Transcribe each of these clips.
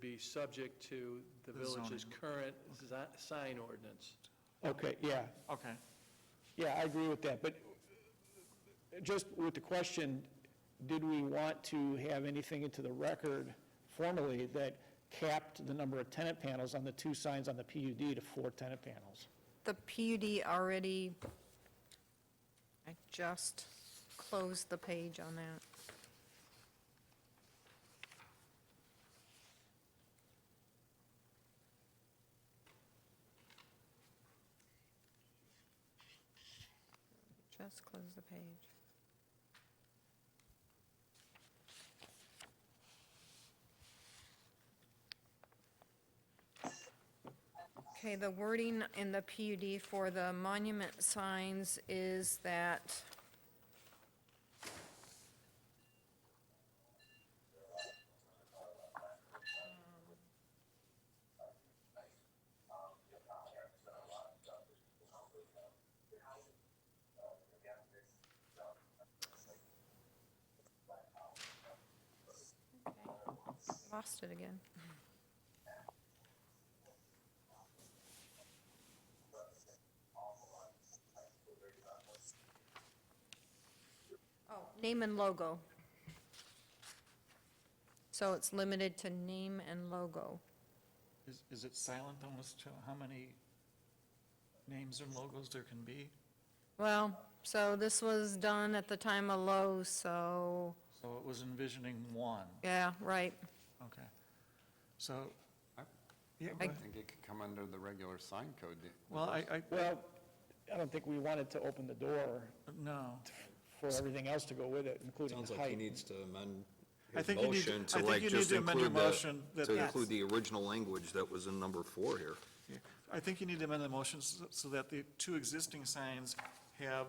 be subject to the The village's zoning. current zi- sign ordinance. Okay, yeah, Okay. yeah, I agree with that, but just with the question, did we want to have anything into the record formally that capped the number of tenant panels on the two signs on the PUD to four tenant panels? The PUD already, I just closed the page on that. Just closed the page. Okay, the wording in the PUD for the monument signs is that lost it again. Oh, Name and logo. So it's limited to name and logo. Is, is it silent on as to how many names and logos there can be? Well, so this was done at the time of Lowe's, so, So it was envisioning one, yeah, right. okay. So, I- yeah, I- I think it could come under the regular sign code. well, I, I, Well, I don't think we wanted to open the door no. for everything else to go with it, including Sounds the like he height. needs to amend I his think you need- motion to I think like you need just to amend your include the, motion that to that's- include the original language that was in number four here. Yeah, I think you need to amend the motion so so that the two existing signs have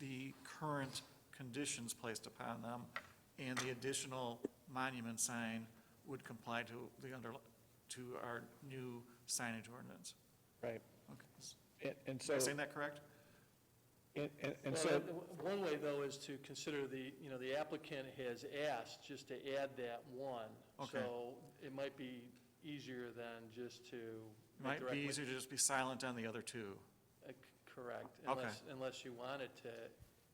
the current conditions placed upon them, and the additional monument sign would comply to the under, to our new signage ordinance. Right, Okay, and, and so, Am I saying that correct? and, and- and Well, so, that- One way, though, is to consider the, you know, the applicant has asked just to add that one. Okay. So it might be easier than just to. It might be directly- easier to just be silent on the other two. Uh, c- Correct, Okay. unless, unless you wanted to.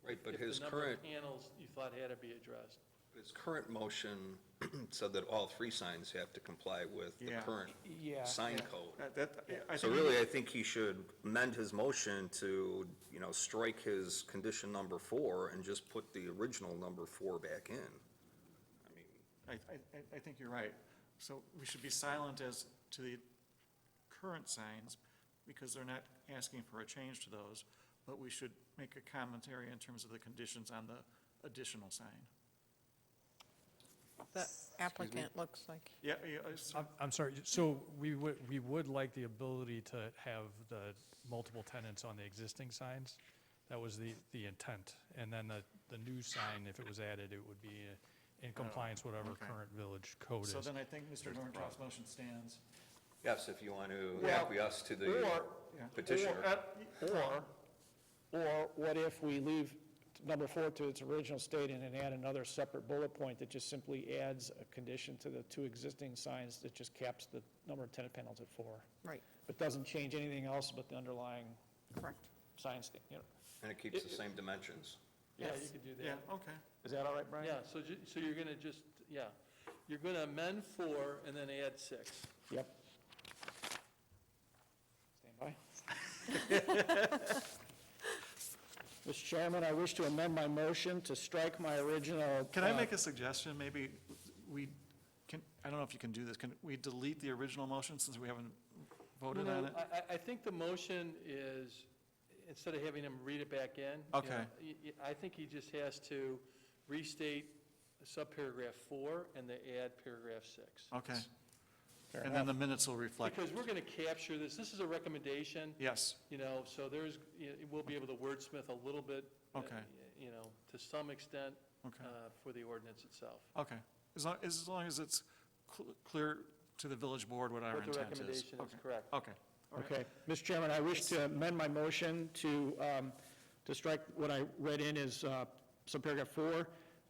Right, but if his the number current, of panels you thought had to be addressed. his current motion said that all three signs have to comply with the Yeah. current yeah, sign Yeah. code. Uh, That, I- I So think you really, I think he should amend his motion to, you know, strike his condition number four and just put the original number four back in. I mean, I, I- I, I think you're right. So we should be silent as to the current signs, because they're not asking for a change to those, but we should make a commentary in terms of the conditions on the additional sign. The applicant looks like, Yeah, yeah, I s- I'm, I'm sorry, so we would, we would like the ability to have the multiple tenants on the existing signs? That was the, the intent, and then the, the new sign, if it was added, it would be in compliance whatever Oh, okay. current village code is. so then I think Mr. Norcross' motion stands. yes, if you want to Well, acquiesce to the or- petitioner. uh, Or, or what if we leave number four to its original state and then add another separate bullet point that just simply adds a condition to the two existing signs that just caps the number of tenant panels at four? right, But doesn't change anything else but the underlying correct. sign sta- you know. And it keeps the same dimensions. Yeah, you Yes. could do that. Yeah, okay. Is that all right, Brian? Yeah, so, ju- so you're gonna just, yeah, you're gonna amend four and then add six. Yep. Stand by. Mr. Chairman, I wish to amend my motion to strike my original. Can I uh, make a suggestion? Maybe we, can, I don't know if you can do this, can we delete the original motion since we haven't voted on No, it? I, I, I think the motion is, instead of having him read it back in. you know, Okay. y- y- I think he just has to restate subparagraph four and then add paragraph six. Okay, fair and then enough. the minutes will reflect, Because we're gonna capture this, this is a recommendation, yes, you know, so there's, y- we'll be able to wordsmith a little bit. uh, Okay. You know, to some extent, okay. uh, for the ordinance itself. Okay, as long, as long as it's cl- clear to the village board what our But intent is. the recommendation is Okay. correct. Okay, all right. Okay, Mr. Chairman, I wish to amend my motion to, um, to strike what I read in as uh, subparagraph four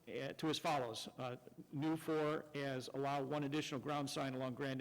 eh, to as follows. Uh, New four as allow one additional ground sign along Grand